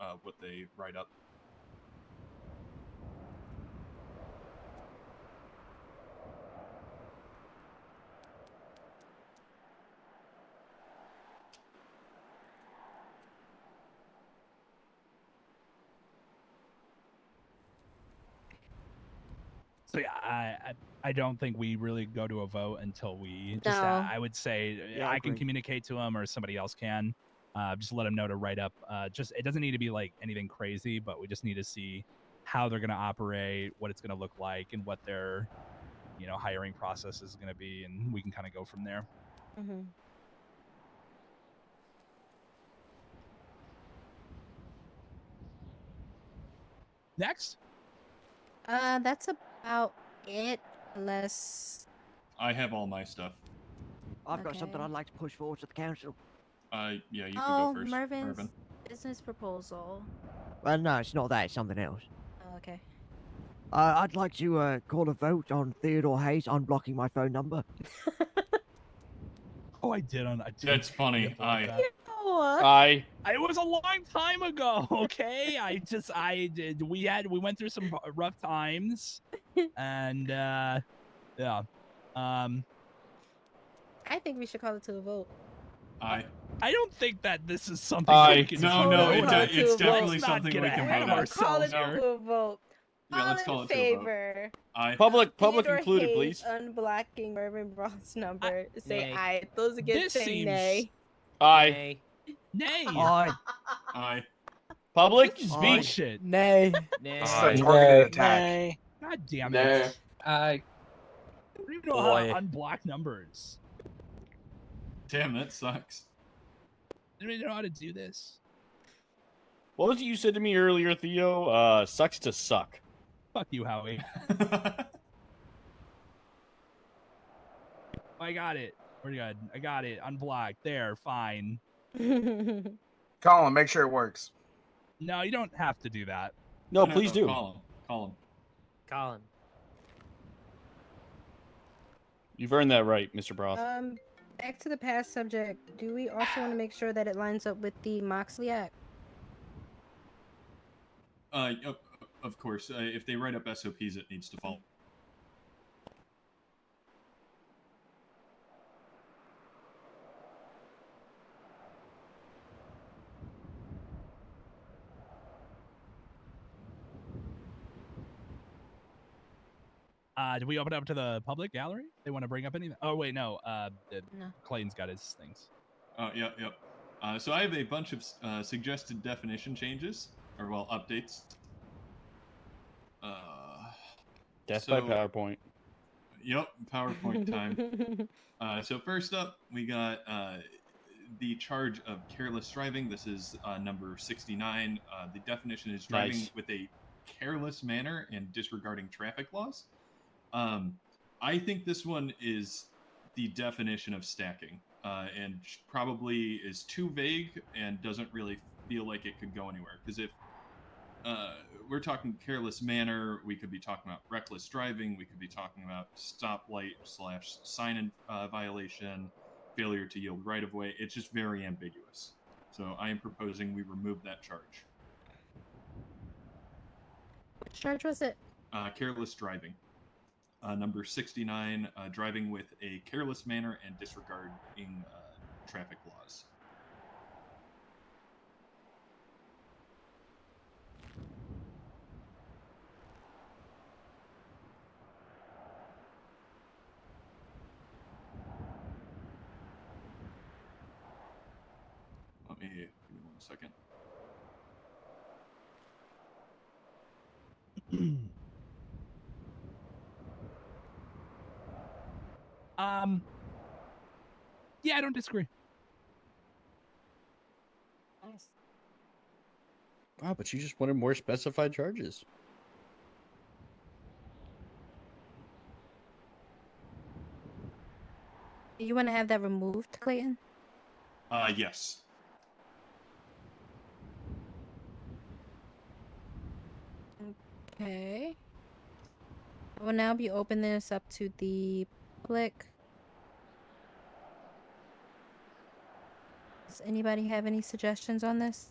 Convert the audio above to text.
uh, what they write up. So yeah, I, I I don't think we really go to a vote until we. Just, uh, No. I would say uh, Yeah, I I, can agree. communicate to him or somebody else can. Uh, just let him know to write up. Uh, just it doesn't need to be like anything crazy, but we just need to see how they're going to operate, what it's going to look like, and what their you know hiring process is going to be, and we can kind of go from there. Mm-hmm. Next, Uh, that's about it. Unless I have all my stuff. I've got something Okay. I'd like to push forward to the council. Uh, yeah, you can oh, go first. Mervin's Mervin. business proposal. Well, no, it's not that. It's something else. Oh, okay. Uh, I'd like to uh, call a vote on Theodore Hayes unblocking my phone number. oh, I did on. I did That's funny, forget about I- that. Uh, No. I I- It was a long time ago, okay? I just I did we had we went through some r- rough times and uh yeah. Um I think we should call it to a vote. I I don't think that this is something I- we can no, vote no, it, on. do- de- Let's it's not definitely get something we ahead can of vote on. ourselves. Call it here. to a vote. Yeah, let's call it to a vote. favor. I public public Theodore included, Hayes please. Unblocking Mervin Braun's number. Say Nay. aye. Those against This say seems- nay. I Nay. Nay. Oh, I I public This is Aye. speech. bullshit. nay. Nay. It's a Aye. targeted attack. Nay. God damn it. Nay. I Aye. don't even know how to Boy. unblock numbers. damn that sucks. I don't even know how to do this. What was it you said to me earlier, Theo? Uh, sucks to suck. Fuck you, Howie. I got it. We're good. I got it. Unblocked. There, fine. Colin, make sure it works. No, you don't have to do that. No, please do. Call him. Call him. Colin. You've earned that right, Mr. Broth. um, back to the past subject. Do we also want to make sure that it lines up with the Moxley Act? Uh, of, of course, uh, if they write up SOPs, it needs to follow. Uh, do we open up to the public gallery? They want to bring up anything? Oh wait, no. Uh, uh, No. Clayton's got his things. Oh, yep, yep. Uh, so I have a bunch of uh, suggested definition changes, or well, updates. Uh, Death by so- PowerPoint. yep, PowerPoint time. Uh, so first up, we got uh, the charge of careless driving. This is uh, number 69. Uh, the definition is driving Nice. with a careless manner and disregarding traffic laws. Um, I think this one is the definition of stacking uh, and sh- probably is too vague and doesn't really feel like it could go anywhere. Because if uh, we're talking careless manner. We could be talking about reckless driving. We could be talking about stoplight slash sign in, uh, violation, failure to yield right of way. It's just very ambiguous. So I am proposing we remove that charge. Which charge was it? Uh, careless driving. Uh, number 69, uh, driving with a careless manner and disregarding uh, traffic laws. Let me give me one second. Um. Yeah, I don't disagree. Wow, but you just wanted more specified charges. You want to have that removed, Clayton? Uh, yes. Okay. I will now be opening this up to the public. Does anybody have any suggestions on this?